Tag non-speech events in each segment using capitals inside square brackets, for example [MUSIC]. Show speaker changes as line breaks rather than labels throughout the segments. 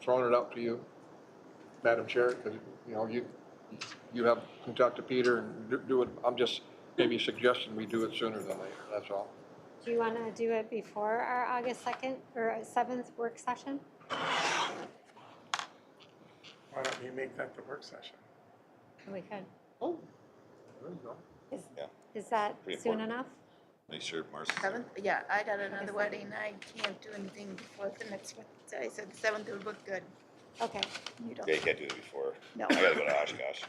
throwing it out to you, Madam Chair, because, you know, you, you have, can talk to Peter and do- do it, I'm just maybe suggesting we do it sooner than later, that's all.
Do you want to do it before our August 2nd or 7th work session?
Why don't you make that the
[LAUGHS]
work session?
We could.
Oh,
There you go.
Is-
Yeah.
Is that
Pretty
soon
important.
enough?
Make sure Marcy's there.
seventh, yeah, I got
Okay,
another wedding, I can't do anything before the next one, so I said the seventh would look good.
Okay,
Yeah,
You
you
don't,
can't do it before.
no.
I gotta go to Oshkosh.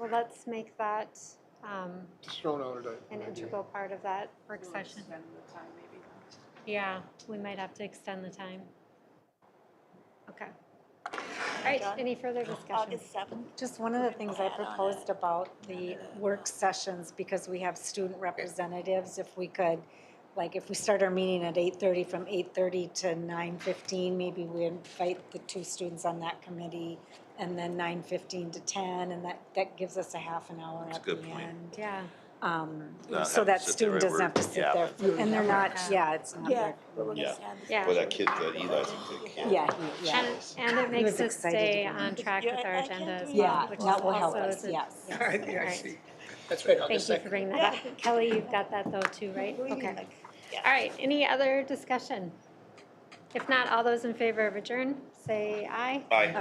well, let's make that um,
Just throwing out a,
an
an idea.
integral part of that work
We'll
session.
Spend the time maybe.
Yeah, we might have to extend the time. Okay. All right, any further discussion?
seventh?
Just one of the things I proposed about the work sessions, because we have student representatives, if we could, like, if we start our meeting at eight thirty, from eight thirty to nine fifteen, maybe we invite the two students on that committee, and then nine fifteen to ten, and that, that gives us a half an hour
That's a
at the
good point.
end.
Yeah,
Um,
Not
so
have to
that
sit there
student
and
doesn't have
work.
to sit
Yeah.
there, and they're not,
Yeah.
yeah, it's not, their-
Yeah.
yeah.
Well, that kid, that Eli's a kid.
yeah, he- yeah.
And, and it makes
was
us
excited to
stay
go in.
on track with our agenda as well,
Yeah,
which is
that will help
also
us,
is a
yes.
I think I
Alright.
see.
That's right,
Thank
August
you for
2nd.
bringing that up. Kelly, you've got that though too, right? Okay. All right, any other discussion? If not, all those in favor of adjourn, say aye.
Bye.